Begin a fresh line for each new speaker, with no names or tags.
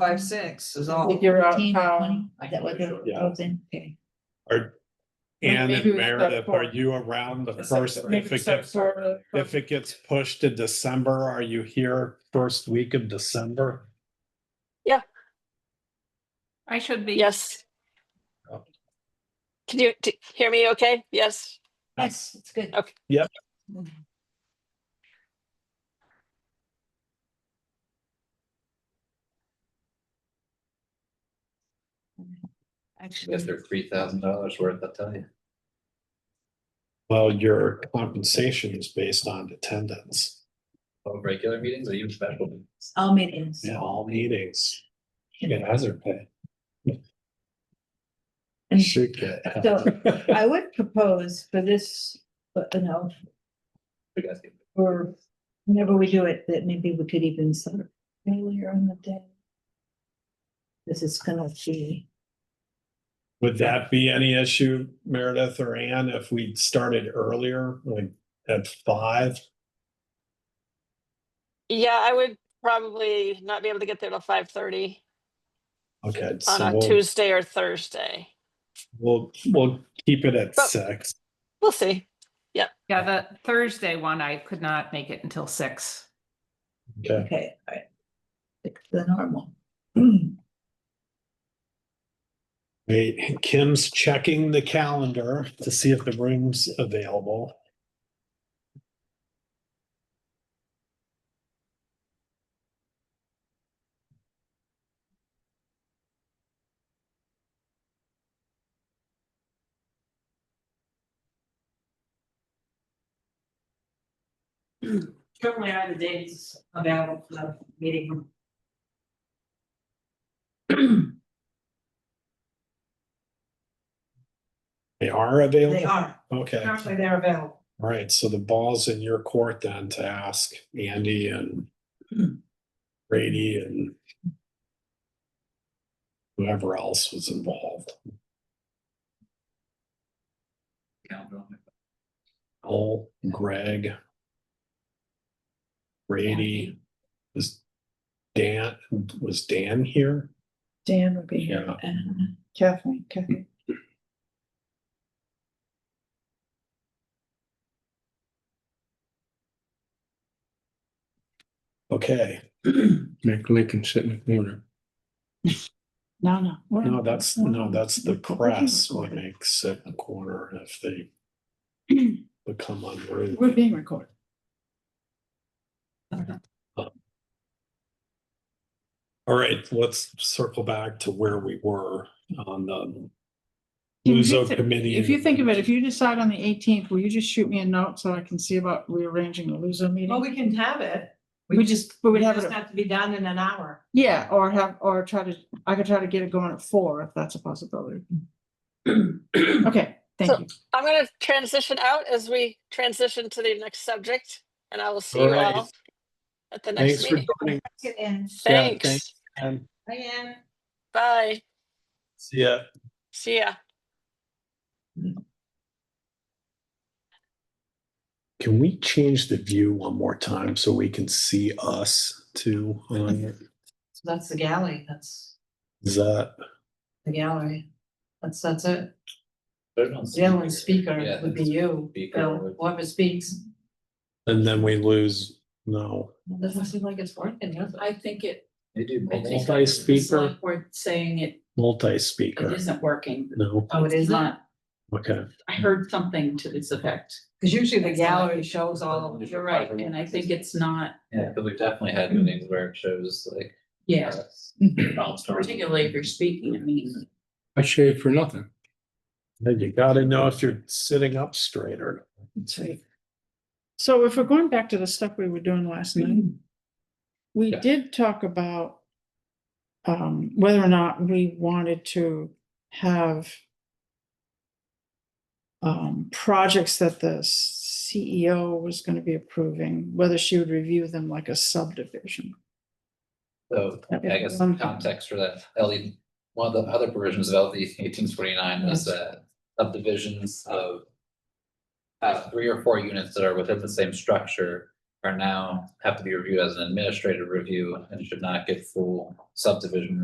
five, six is
I
all.
think you're out
Fifteen or
town.
twenty, is that what they're
Yeah.
proposing? Okay.
Ann
Maybe
and
we start
Meredith,
for-
are you around the
Except-
first,
maybe
if it
except
gets,
for-
if it gets pushed to December, are you here first week of December?
I should be.
Yes.
Oh.
Can you t- hear me okay? Yes,
Yes, it's good. Mm-hmm.
Okay.
Yep.
Actually,
Guess they're three thousand dollars worth, I'll tell you.
Well, your compensation is based on attendance,
Of regular meetings or even special meetings.
all meetings.
in all meetings. You get hazard pay.
And
Should get.
So- I would propose for this, but you know,
You guys get-
for whenever we do it, that maybe we could even sort of earlier on the day. This is gonna be,
Would that be any issue, Meredith or Ann, if we started earlier, like at five?
yeah, I would probably not be able to get there till five thirty
Okay,
on
so
a
we'll,
Tuesday or Thursday.
we'll, we'll keep it at
But-
six.
We'll see.
Yeah, the Thursday one, I could not make it until six.
Okay,
okay, all right. Like the normal.
wait, Kim's checking the calendar to see if the room's available.
Certainly are the dates available for the meeting room.
They are available?
They are,
Okay, all
currently they're available.
right, so the ball's in your court then to ask Andy and Brady and whoever else was involved.
Count on it.
Cole, Greg. Brady was Dan, was Dan here?
Dan would be
here.
Kathleen, Kathleen.
Okay,
Make Lincoln sit in the corner.
No, no.
no, that's, no, that's the press what makes it a corner if they become unruly.
We're being recorded.
All right, let's circle back to where we were on the Luso committee.
If you think of it, if you decide on the eighteenth, will you just shoot me a note so I can see about rearranging the Luso meeting?
Well, we can have it.
We just, we would
It
have
doesn't
it,
have to be done in an hour.
yeah, or have, or try to, I could try to get it going at four if that's a possibility. Okay, thank
So-
you.
I'm gonna transition out as we transition to the next subject and I will see you
Alright.
all at the
Thanks
next
for
meeting.
joining.
And
Yeah, thanks.
Thanks.
and
I am.
Bye.
See ya.
See ya.
Can we change the view one more time so we can see us too? on it?
So That's the galley. That's
Is that,
the gallery. That's, that's it.
Put it on
The only
speaker.
speaker
Yeah,
would be
that's-
you,
speaker
Bill,
would-
whoever speaks.
and then we lose, no.
Doesn't seem like it's working, does it?
I think it,
They do.
I think
multiple-
Multi-speaker,
we're saying it, it
multi-speaker,
isn't working.
no,
Oh, it
It's
isn't?
not.
okay.
I heard something to this effect.
Cause usually the
That's not-
gallery shows all of it.
Oh, You're right, and I think it's not,
Yeah, because we've definitely had meetings where it shows like. uh,
yeah, particularly if
Particularly.
you're speaking, I mean,
I shaved for nothing.
Then you gotta know if you're sitting up straight or.
That's right. So if we're going back to the stuff we were doing last night, we
Yeah.
did talk about um, whether or not we wanted to have um, projects that the CEO was gonna be approving, whether she would review them like a subdivision.
So I guess
Um,
context for that, LE, one of the other provisions of LD eighteen forty-nine was that subdivisions of uh, three or four units that are within the same structure are now have to be reviewed as an administrative review and should not get full subdivision